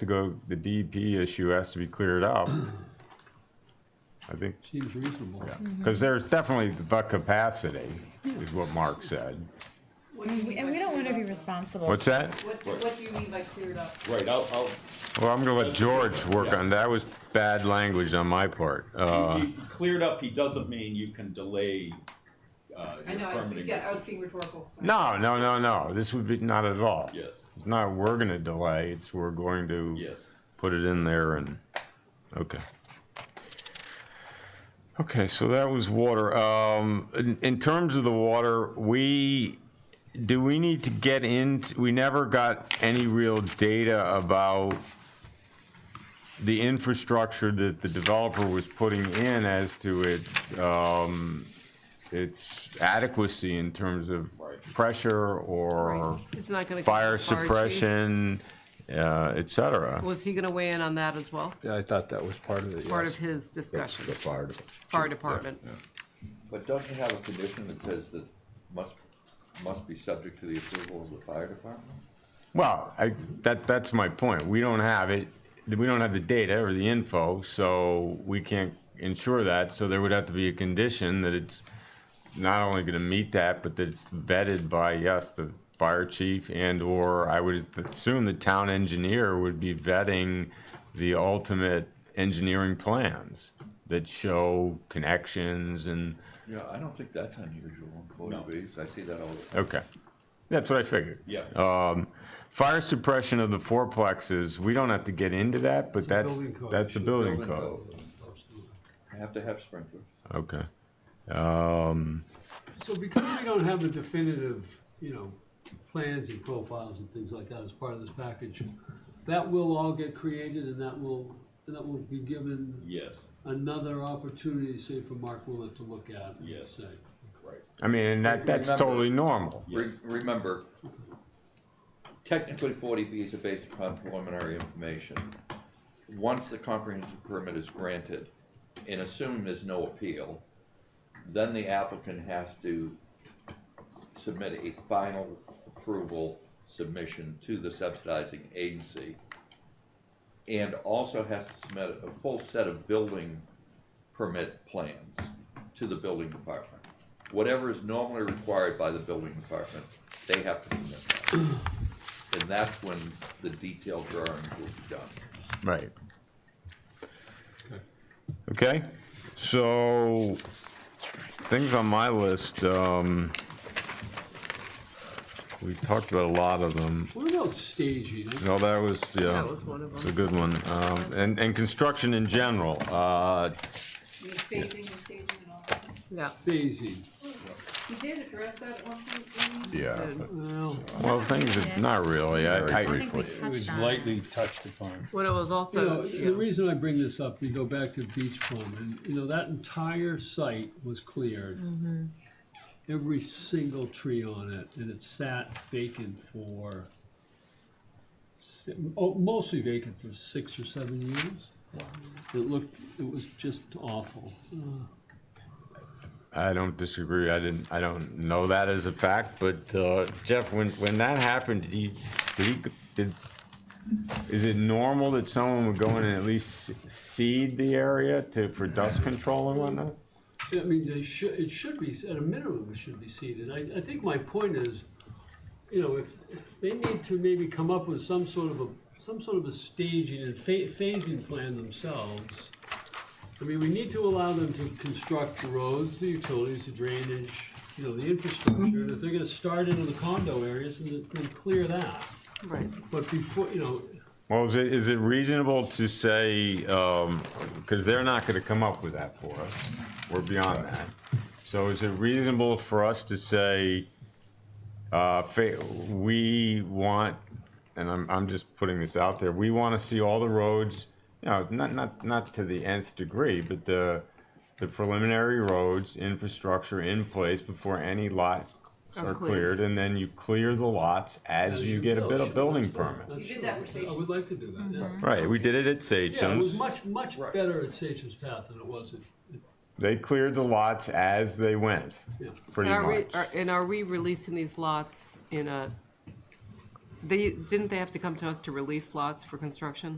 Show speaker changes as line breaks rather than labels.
to go, the DEP issue has to be cleared up. I think,
Seems reasonable.
because there's definitely the capacity, is what Mark said.
What do you mean
And we
by
don't
cleared
want to be
up?
responsible.
What's that?
What, what do you mean by cleared up?
Right, I'll, I'll,
Well, I'm gonna let George work on, that was bad language on my part. Uh,
he- he cleared up, he doesn't mean you can delay, uh,
I
your
know, I- you
permitting.
get, I was
decision.
being rhetorical. sorry.
No, no, no, no, this would be, not at all.
Yes,
It's not, we're gonna delay, it's we're going to.
yes.
put it in there and, okay. Okay, so that was water. Um, in, in terms of the water, we, do we need to get into, we never got any real data about the infrastructure that the developer was putting in as to its, um, its adequacy in terms of
Right.
pressure or
It's not gonna. come
fire
from fire chief.
suppression, uh, et cetera.
Was he gonna weigh in on that as well?
Yeah, I thought that was part of it,
Part of
yes.
his
That's
discussion,
the fire department.
fire department.
But don't you have a condition that says that must, must be subject to the approval of the fire department?
Well, I, that, that's my point. We don't have it, we don't have the data or the info, so we can't ensure that. So there would have to be a condition that it's not only gonna meet that, but that it's vetted by, yes, the fire chief and/or I would assume the town engineer would be vetting the ultimate engineering plans that show connections and,
Yeah, I don't think that's unusual in
No.
forty Bs, I see that all the time.
okay. That's what I figured.
Yeah.
Um, fire suppression of the fourplexes, we don't have to get into that, but that's,
Building code.
that's a
It's
building code.
Absolutely.
You have to have sprinklers.
Okay. Um,
So because we don't have a definitive, you know, plans and profiles and things like that as part of this package, that will all get created and that will, and that will be given
Yes,
another opportunity, say, for Mark Willett to look at and
Yes.
say.
right,
I mean, and that, that's
Remember-
totally normal.
Re-
yes,
Remember, technically forty Bs are based upon preliminary information. Once the comprehensive permit is granted, and assume there's no appeal, then the applicant has to submit a final approval submission to the subsidizing agency. And also has to submit a full set of building permit plans to the building department. Whatever is normally required by the building department, they have to submit that. And that's when the detailed drawings will be done.
Right. Okay, so things on my list, um, we talked about a lot of them.
What about staging?
No, that was, yeah.
That was one of
It's a
them.
good one. Um, and, and construction in general, uh,
You mean phasing and staging and all that?
Yeah,
Phasing,
You did address that at one point, didn't you?
Yeah, but
well,
well, things, are not really, I,
very
I,
think we
briefly.
touched on it.
touched upon.
when it was
you know,
also,
the
yeah,
reason I bring this up, we go back to Beach Plum, and, you know, that entire site was cleared. Every single tree on it, and it sat vacant for, si- oh, mostly vacant for six or seven years. It looked, it was just awful.
I don't disagree. I didn't, I don't know that as a fact, but, uh, Jeff, when, when that happened, did he, did he, did, is it normal that someone would go in and at least seed the area to, for dust control and whatnot?
I mean, they should, it should be, at a minimum, it should be seeded. I, I think my point is, you know, if, they need to maybe come up with some sort of a, some sort of a staging and pha- phasing plan themselves. I mean, we need to allow them to construct the roads, the utilities, the drainage, you know, the infrastructure. And if they're gonna start into the condo areas, then, then clear that.
right.
But before, you know,
Well, is it, is it reasonable to say, um, because they're not gonna come up with that for us, we're beyond that. So is it reasonable for us to say, uh, fa- we want, and I'm, I'm just putting this out there, we wanna see all the roads, you know, not, not, not to the nth degree, but the, the preliminary roads, infrastructure in place before any lots
Are
are
cleared.
cleared, and then you clear the lots as you get a bit of building permit.
That's
You did that with Mm-hmm.
true. I
Sage.
would like to do that, yeah.
Right, we did it at
Yeah, it was
Sagem's.
much, much better at Sage's Path than it was at,
They cleared the lots as they went,
yeah.
pretty
And are we,
much.
are- and are we releasing these lots in a they, didn't they have to come to us to release lots for construction?